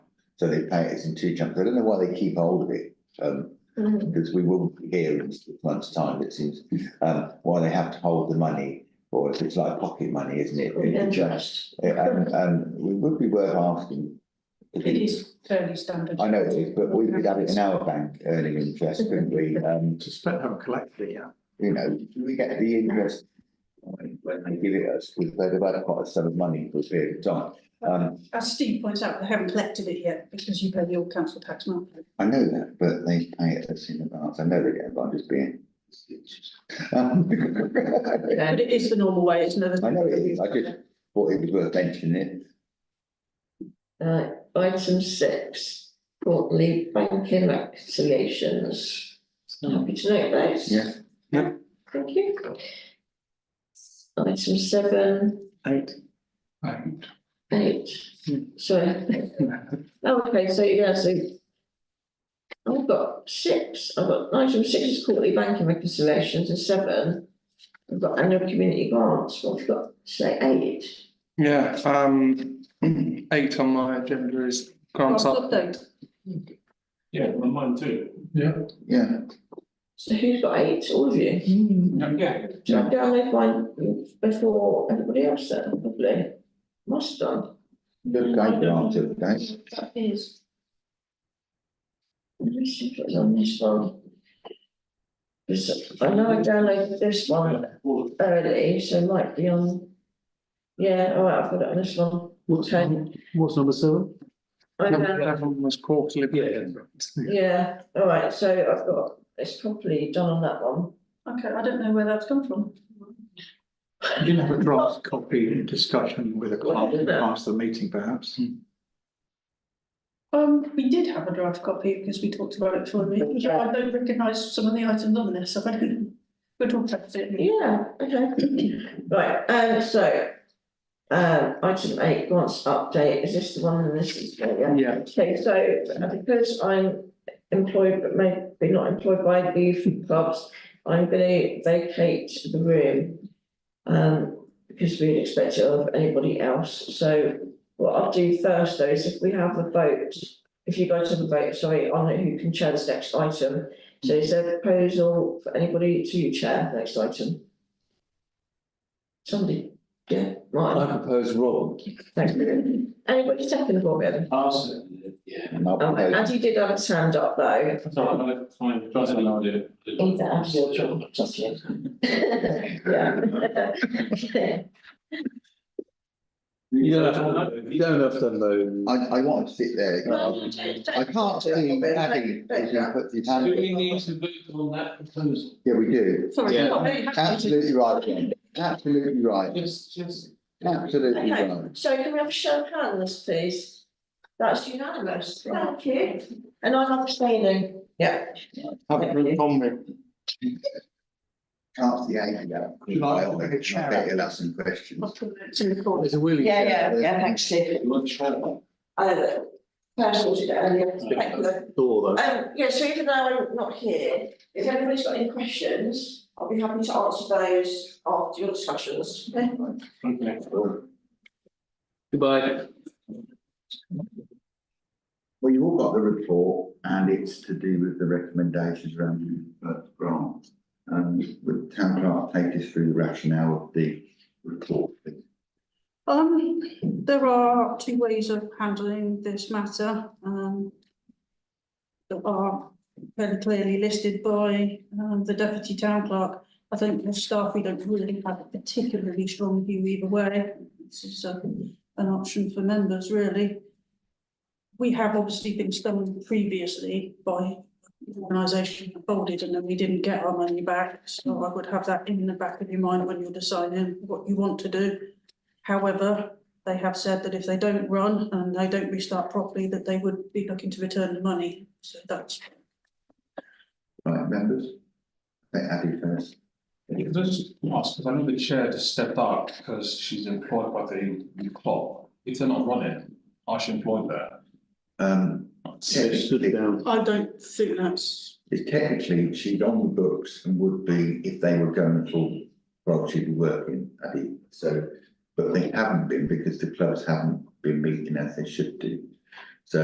So they pay it in two chunks. I don't know why they keep hold of it. Um, Mhm. because we will be here in six months' time, it seems, um, why they have to hold the money. Or if it's like pocket money, isn't it? It just, and, and we would be worth asking. if It is fairly standard. I know it is, but we could have it in our bank earning interest, couldn't we? Um, Suspect how collectively, yeah. you know, we get the interest when when they give it us, because they've had quite a sum of money for a period of time. Um, As Steve points out, they haven't collected it yet because you pay the old council tax monthly. I know that, but they pay it us in advance. I know they get, but I'm just being. Um, But it is the normal way, it's another. I know it is, I just thought it was worth mentioning it. Uh, item six, quarterly banking reconciliations. Happy to note those. Yeah. Yeah. Thank you. Item seven, Eight. Eight. eight, Hmm. sorry. Oh, okay, so yeah, so. I've got six, I've got item six is quarterly banking reconciliations and seven. I've got annual community grants, what have you got, say eight? Yeah, um, eight on my agenda is grants up. Update. Yeah, on mine too. Yeah. Yeah, So who's got eight, all of you? Yeah, Did I download mine before everybody else then, probably? Must have done. good guy, answer, guys. That is. Let me see if it's on this one. 'Cause I know I downloaded this one early, so it might be on. Yeah, all right, I've got it on this one. What's, Okay. num- what's number seven? I Number downloaded- eleven was quarterly. Yeah, all right, so I've got, it's probably done on that one. Okay, I don't know where that's come from. You can have a draft copy in discussion with a clerk Yeah. past the meeting perhaps. Um, we did have a draft copy because we talked about it before. the meeting. So I don't recognise some of the items on this, so I don't. We'll talk about it. in the- Yeah, okay. Right, um, so. Um, item eight, grants update, is this the one and this is, yeah? Yeah, Okay, so uh, because I'm employed, but maybe not employed by the youth clubs, I'm gonna vacate the room. Um, because we'd expect it of anybody else, so what I'll do first though is if we have a vote. If you guys have a vote, sorry, on who can chair this next item, so is there a proposal for anybody to chair the next item? Somebody, yeah, right, propose Rob. thanks, anybody second for me? Uh, Yeah. And I'll Um, propose and you did have a hand up though. So I'm gonna find, try to find it. Yeah. You have to know. I, I want to sit there. Well, you did. I can't see Abby, if you put your hand. Do we need to vote on that proposal? Yeah, we do. Sorry. Yeah. not very happy. Absolutely right, Jen. Absolutely right. Just, just. Absolutely Okay. right. So can we have a show of hands, please? That's unanimous, thank you. And I'm abstaining. Yeah. have a drink on me. Can't see eight now. Should I- I'll make a better lesson questions. It's in the corner. There's a wheelie. Yeah, chair yeah, there. yeah, thanks, Steve. You want to try that? Uh, first ordered earlier, thank you. Door though. Um, yeah, so even though I'm not here, if anybody's got any questions, I'll be happy to answer those after your discussions. Okay. Goodbye. Well, you've all got the report and it's to do with the recommendations around the uh, grant. Um, would town clerk take us through the rationale of the report? please? Um, there are two ways of handling this matter, um. That are very clearly listed by, um, the deputy town clerk. I think the staff, we don't really have a particularly strong view either way. This is a, an option for members, really. We have obviously been stung previously by the organisation that folded and then we didn't get our money back. So I would have that in the back of your mind when you're deciding what you want to do. However, they have said that if they don't run and they don't restart properly, that they would be looking to return the money. So that's, Right, members? Let Abby first. Can I just ask, because I know the chair just stepped out because she's employed by the the club. If they're not running, I should employ her. Um, Stood technically, down. I don't think that's, technically, she's on the books and would be if they were going full, well, she'd be working, Abby. So, but they haven't been because the clubs haven't been meeting as they should do.